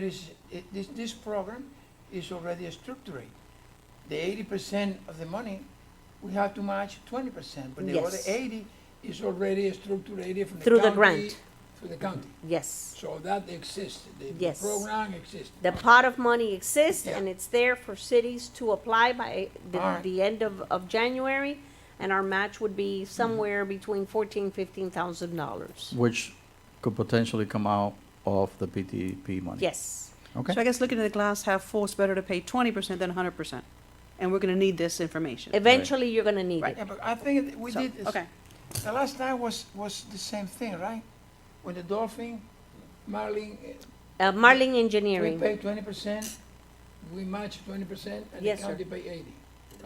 It is, it, this, this program is already structured. The eighty percent of the money, we have to match twenty percent, but the other Yes. eighty is already structured from the county. Through the grant. Through the county. Yes. So that exists, the the Yes. program exists. The pot of money exists and Yeah. it's there for cities to apply by the, Alright. the end of, of January. And our match would be somewhere between fourteen, fifteen thousand dollars. Which could potentially come out of the PTP money? Yes. So Okay, I guess looking at the glass half full, it's better to pay twenty percent than hundred percent. And we're gonna need this information. Eventually, you're gonna need Right. it. Yeah, but I think we So, did, this- Okay, the last time was, was the same thing, right? When the Dolphin, Marlin, eh, Uh, Marling we Engineering, pay twenty percent, we match twenty percent, and the Yes, sir. county pay eighty,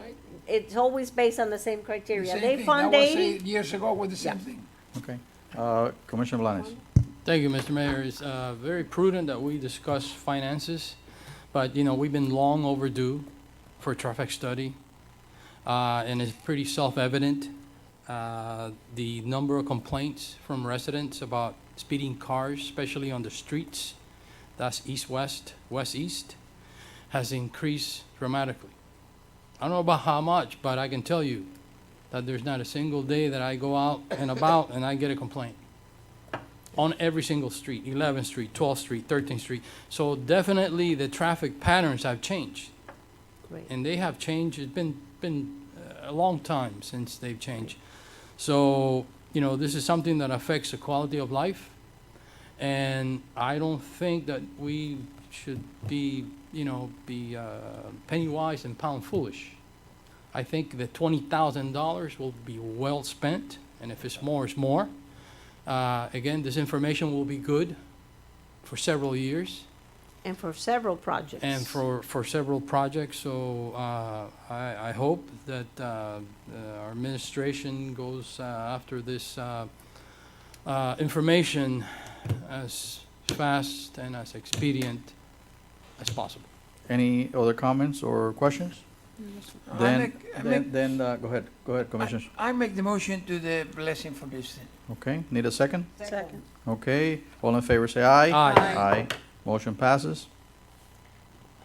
right? it's always based on the same The criteria. same They thing. fund That was eighty. eight Years ago with the same Yeah. thing. okay. Uh, Commissioner Blanes, Thank you, Mr. Mayor. It's uh, very prudent that we discuss finances, but, you know, we've been long overdue for a traffic study, uh, and it's pretty self-evident. uh, The number of complaints from residents about speeding cars, especially on the streets, that's east-west, west-east, has increased dramatically. I don't know about how much, but I can tell you that there's not a single day that I go out and about and I get a complaint on every single street, 11th Street, 12th Street, 13th Street. So definitely the traffic patterns have changed, Right. and they have changed. It's been, been uh, a long time since they've changed. So, you know, this is something that affects the quality of life, and I don't think that we should be, you know, be uh, penny wise and pound foolish. I think the $20,000 will be well spent, and if it's more, it's more. Uh, Again, this information will be good for several years And for several projects. and for, for several projects, so uh, I, I hope that uh, uh, our administration goes uh, after this uh, uh, information as fast and as expedient as possible. any other comments or questions? Mm, I Then, make- I make- then, then, uh, go ahead, go ahead, Commissioner. I make the motion to the blessing for this thing. Okay, need a second? second. Okay, all in favor, say aye. Aye. Aye. Motion passes.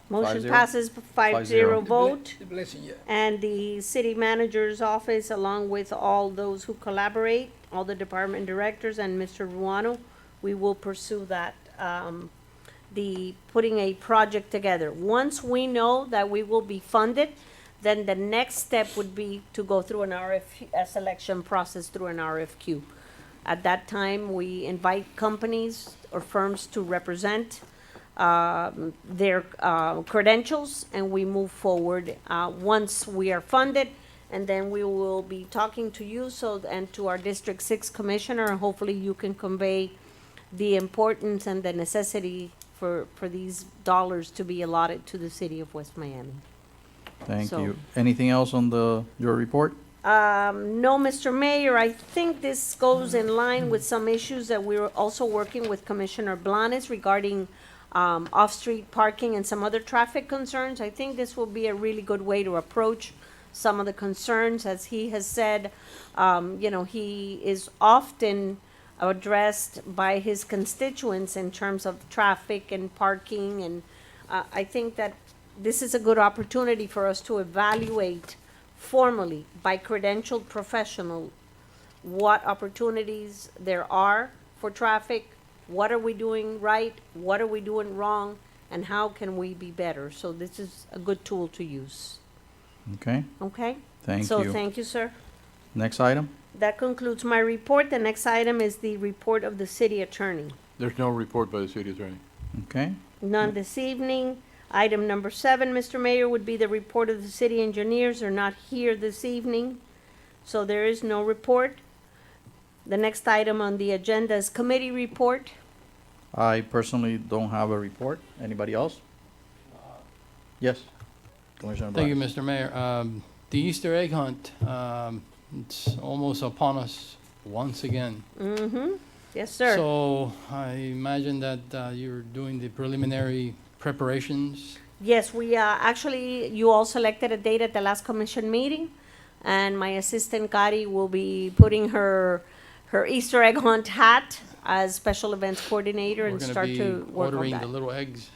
Motion zero. passes five Five zero zero. The ble- vote. The blessing, yeah. And the city manager's office, along with all those who collaborate, all the department directors and Mr. Ruano, we will pursue that, um, the, putting a project together. Once we know that we will be funded, then the next step would be to go through an RFQ, a selection process through an RFQ. At that time, we invite companies or firms to represent um, their uh, credentials, and we move forward uh, once we are funded. And then we will be talking to you so, and to our District Six Commissioner, and hopefully you can convey the importance and the necessity for, for these dollars to be allotted to the city of West Miami. Thank So- you. Anything else on the, your report? Um, no, Mr. Mayor, I think this goes in line with some issues that we were also working with Commissioner Blanes regarding, um, off-street parking and some other traffic concerns. I think this will be a really good way to approach some of the concerns, as he has said. Um, you know, he is often addressed by his constituents in terms of traffic and parking and, uh, I think that this is a good opportunity for us to evaluate formally by credentialed professional what opportunities there are for traffic, what are we doing right, what are we doing wrong, and how can we be better. So this is a good tool to use, Okay, okay? thank So you. thank you, sir. Next item? That concludes my report. The next item is the report of the city attorney. There's no report by the city attorney. Okay, None this evening. Item number seven, Mr. Mayor, would be the report of the city engineers are not here this evening, so there is no report. The next item on the agenda is committee report. I personally don't have a report. Anybody else? Yes, Commissioner Uh, Thank you, Blanes. Mr. Mayor. Um, The Easter egg hunt, um, it's almost upon us once again. Mm-hmm. Yes, sir. So I imagine that uh, you're doing the preliminary preparations. Yes, we, uh, actually, you all selected a date at the last commission meeting, and my assistant Kari will be putting her, her Easter egg hunt hat as special events coordinator We're and gonna start be to work on Ordering the that. little eggs.